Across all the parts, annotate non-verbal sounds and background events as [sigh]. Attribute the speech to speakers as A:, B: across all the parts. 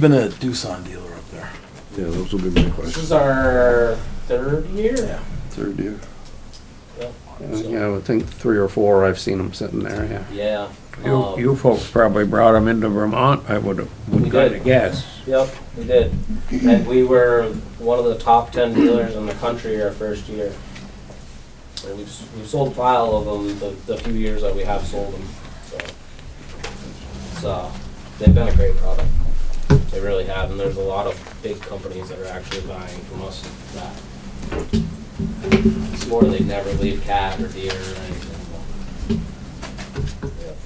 A: Been a Doosan dealer up there.
B: Yeah, those will be my
C: This
B: questions.
C: is our third year.
A: Yeah.
D: Third year.
C: Yep.
D: Yeah, I would think three or four, I've seen them sitting there, yeah.
C: Yeah.
E: You,
C: Um,
E: you folks probably brought them into Vermont, I would,
C: We
E: would kind
C: did.
E: of guess.
C: Yep, we did. And we were one of the top ten dealers in the country our first year. And we've, s- we've sold a pile of them the, the few years that we have sold them, so. So, they've been a great product. They really have, and there's a lot of big companies that are actually buying from us that. Swore they'd never leave cat or deer or anything. but- Yep,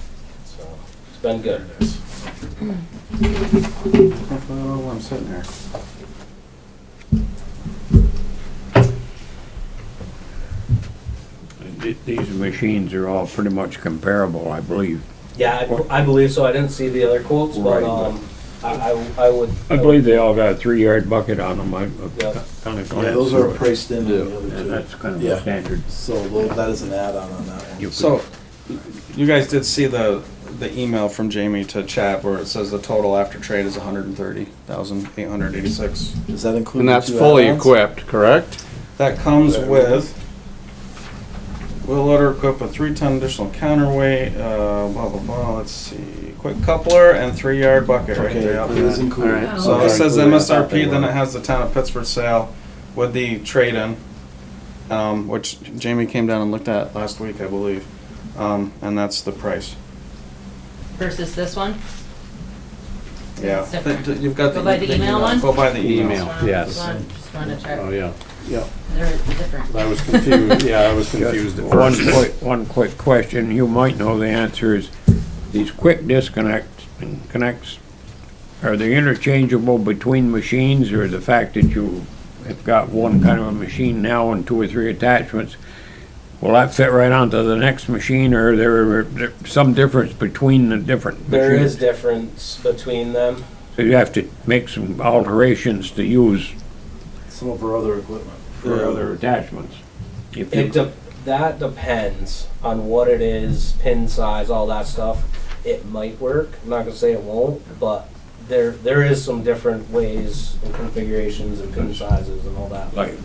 C: So, it's been good.
D: Oh, I'm sitting there.
E: Th- These machines are all pretty much comparable, I believe.
C: Yeah, I, I believe so. I didn't see the other quotes, but,
E: Right.
C: um, I, I, I would.
E: I believe they all got a three-yard bucket on them, I
C: Yeah.
E: kind of glanced
D: Oh,
A: Yeah, those are
E: through it.
A: priced in on the
E: And
A: other two.
E: that's kind of
A: Yeah.
E: the standard.
A: So tho- that is an add-on on that one.
E: You could-
F: So, you guys did see the the email from Jamie to chat where it says the total after trade is one hundred and thirty thousand eight hundred eighty six.
A: Does that include?
D: And
A: the
D: that's
A: two
D: fully
A: add-ons?
D: equipped, correct?
F: That comes with. We'll let her equip a three ton additional counterweight. Uh, blah blah blah. Let's see, quick coupler and three yard bucket right
A: Okay,
F: there. up
A: it is
F: there.
A: included.
D: Alright,
F: So
D: Okay.
F: it says
D: Included, I thought
F: MSRP.
D: they
F: Then
D: were.
F: it has the town of Pittsburgh sale with the trade in, um, which Jamie came down and looked at last week, I believe, um, and that's the price.
G: versus this one?
F: Yeah,
G: It's different.
F: Th- th- you've got the.
G: Go by the email one?
F: Go by the
D: Email.
F: email.
G: Just wanna-
D: yes.
G: just wanna- Just wanted to
D: Oh,
G: check,
D: yeah. Yeah.
G: they're different.
D: I was confused, yeah, I was confused at
E: One
D: first.
E: quick, one quick question, you might know the answer is, these quick disconnects and connects, are they interchangeable between machines, or the fact that you have got one kind of a machine now and two or three attachments, will that fit right onto the next machine, or there are there some difference between the different
C: There is
E: machines?
C: difference between them.
E: So you have to make some alterations to use
A: Some of our other equipment.
E: for other attachments? If you-
C: It de- that depends on what it is, pin size, all that stuff. It might work. I'm not gonna say it won't, but there, there is some different ways and configurations and pin sizes and all that.
E: like,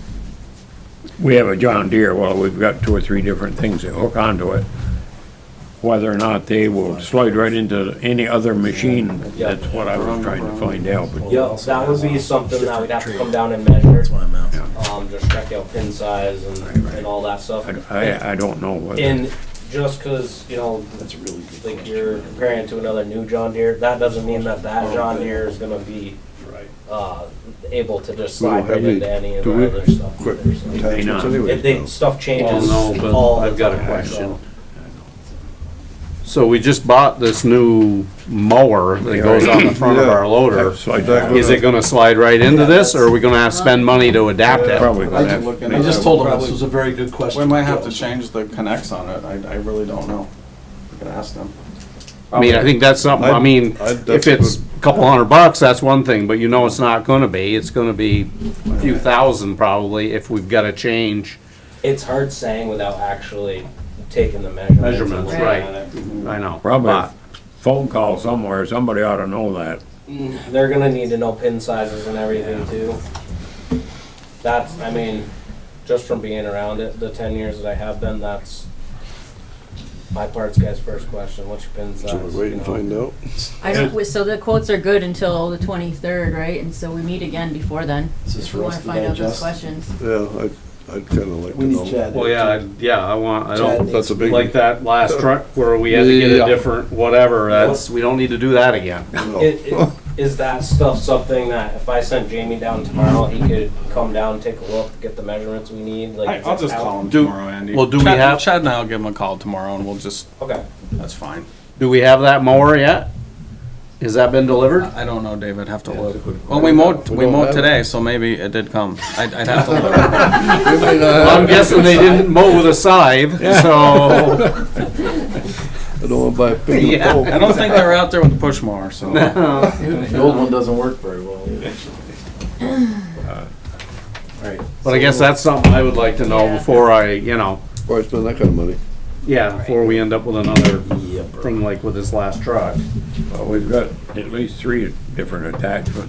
E: we have a John Deere, well, we've got two or three different things that hook onto it. Whether or not they will slide right into any other machine, that's what I was trying to find out, but
C: Yep, that would be something that we'd have to come down and
A: That's
C: measure,
A: why I'm asking.
C: um, just check out pin size and, and all that stuff.
E: I- I, I don't know whether,
C: And just cause, you know,
A: That's a really good
C: like
A: question.
C: you're comparing to another new John Deere, that doesn't mean that that John Deere is gonna be, uh, able to just
B: We don't
C: slide right
B: have any-
C: into any of
B: do we-
C: our other stuff.
B: Quick
C: either, so. If
B: attachments anyways,
C: they,
B: though.
C: stuff changes
D: Well, Oh, no, but
C: all the
D: I've got a
C: time,
D: question.
C: so.
D: So we just bought this new mower that goes on the front of our loader.
E: slide
B: That
E: that,
B: goes-
D: Is it gonna slide right into this, or are we gonna have to spend money to adapt it?
E: probably
F: I
E: gonna
F: can
E: have.
F: look
E: to
F: into
A: I
E: make
A: just
E: a-
A: told him this was a very good question.
F: We might have to change the connects on it. I, I really don't know. I can ask them.
D: I mean, I think that's something, I
B: I'd-
D: mean,
B: I'd-
D: if
B: that's a
D: it's a couple hundred bucks, that's one thing, but you know it's not gonna be. It's gonna be a few thousand probably if we've gotta change.
C: It's hard saying without actually taking the measurements. and
D: Measurements,
C: looking
D: right.
C: at it.
D: I know.
E: Probably
D: but-
E: a phone call somewhere, somebody ought to know that.
C: They're gonna need to know pin sizes and everything too. That's, I mean, just from being around it, the ten years that I have been, that's my parts guy's first question, what's your pin size?
B: Should we wait
C: you
B: and
C: know?
B: find
G: I
B: out?
G: don't, wi- so the quotes are good until the twenty-third, right, and so we meet again before then.
A: This is
G: if we
A: for us
G: wanna
A: to
G: find out those
A: digest.
G: questions.
B: Yeah, I'd, I'd kinda like to
A: We
B: know.
A: need Chad.
D: Well, yeah, I- yeah, I want, I don't,
B: That's a big one.
D: like that last truck where we had to get
B: Yeah.
D: a different whatever, that's, we don't need to do that again.
C: Is, is- is that stuff something that if I sent Jamie down tomorrow, he could come down, take a look, get the measurements we need, like?
F: I, I'll just call them
D: Do-
F: tomorrow, Andy.
D: well, do we
F: Chad-
D: have-
F: Chad and I'll give them a call tomorrow and we'll just,
C: Okay,
F: that's fine.
D: Do we have that mower yet? Has that been delivered?
F: I I don't know, David. Have to
B: a
F: look.
B: good-
F: Well, we mowed,
B: We
F: we
B: don't have
F: mowed
B: it.
F: today, so maybe it did come. I'd, I'd [laughs] have to look.
D: I'm guessing they didn't mow with a scythe, so.
B: [laughs]
D: [laughs]
B: I don't wanna buy a big
D: Yeah.
B: old
F: I don't think they were out there with the push mower, [laughs] so.
A: The old one doesn't work very well. either. Alright.
D: But I guess that's something I would like to know
G: Yeah.
D: before I, you know,
B: Or I spend that kinda money.
D: yeah, before we end up with another
A: Yep.
D: thing like with his last truck.
E: Well, we've got at least three different attachments